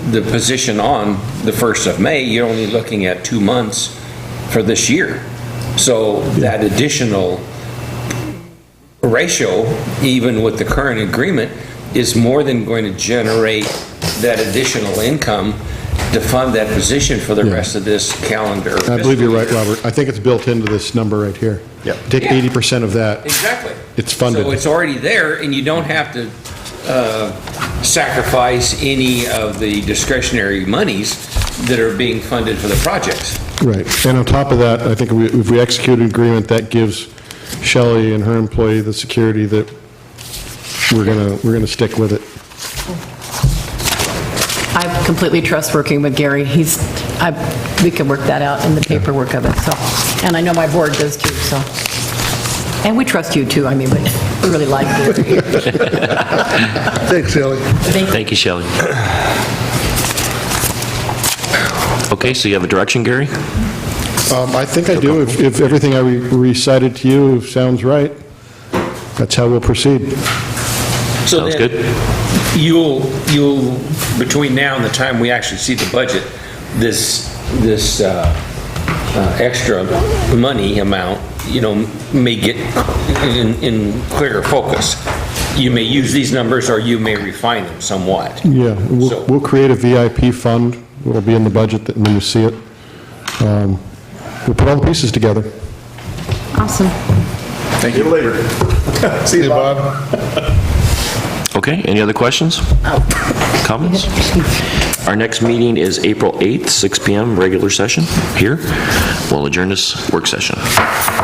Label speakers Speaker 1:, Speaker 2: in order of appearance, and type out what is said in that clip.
Speaker 1: the position on the 1st of May, you're only looking at two months for this year. So that additional ratio, even with the current agreement, is more than going to generate that additional income to fund that position for the
Speaker 2: Yeah.
Speaker 1: rest of this calendar.
Speaker 2: I believe you're right,
Speaker 1: fiscal year.
Speaker 2: Robert. I think it's built into this number right here.
Speaker 3: Yep.
Speaker 2: Take
Speaker 1: Yeah.
Speaker 2: 80% of that.
Speaker 1: Exactly.
Speaker 2: It's funded.
Speaker 1: So it's already there, and you don't have to uh, sacrifice any of the discretionary monies that are being funded for the projects.
Speaker 2: Right. And on top of that, I think we- if we execute an agreement, that gives Shelley and her employee the security that we're going to, we're going to stick with it.
Speaker 4: I completely trust working with Gary. He's, I, we could work that out in the paperwork of it, so. And I know my board does too, so. And we trust you too, I mean, we we really like you.
Speaker 5: Thanks, Ellie.
Speaker 4: Thank
Speaker 3: Thank you, Shelley. Okay, so you have a direction, Gary?
Speaker 2: Um, I think I do. If- If everything I re- recited to you sounds right, that's how we'll proceed.
Speaker 1: So
Speaker 3: Sounds
Speaker 1: then
Speaker 3: good.
Speaker 1: You'll, you'll, between now and the time we actually see the budget, this, this uh, uh, extra money amount, you know, may get in, in clearer focus. You may use these numbers or you may refine them somewhat.
Speaker 2: Yeah, we'll,
Speaker 1: So-
Speaker 2: we'll create a VIP fund. It'll be in the budget that- when you see it. Um, We'll put all the pieces together.
Speaker 4: Awesome.
Speaker 6: Thank you. later. See you, Bob.
Speaker 3: Okay, any other questions? Comments? Our next meeting is April 8th, 6 PM, regular session here. We'll adjourn this work session.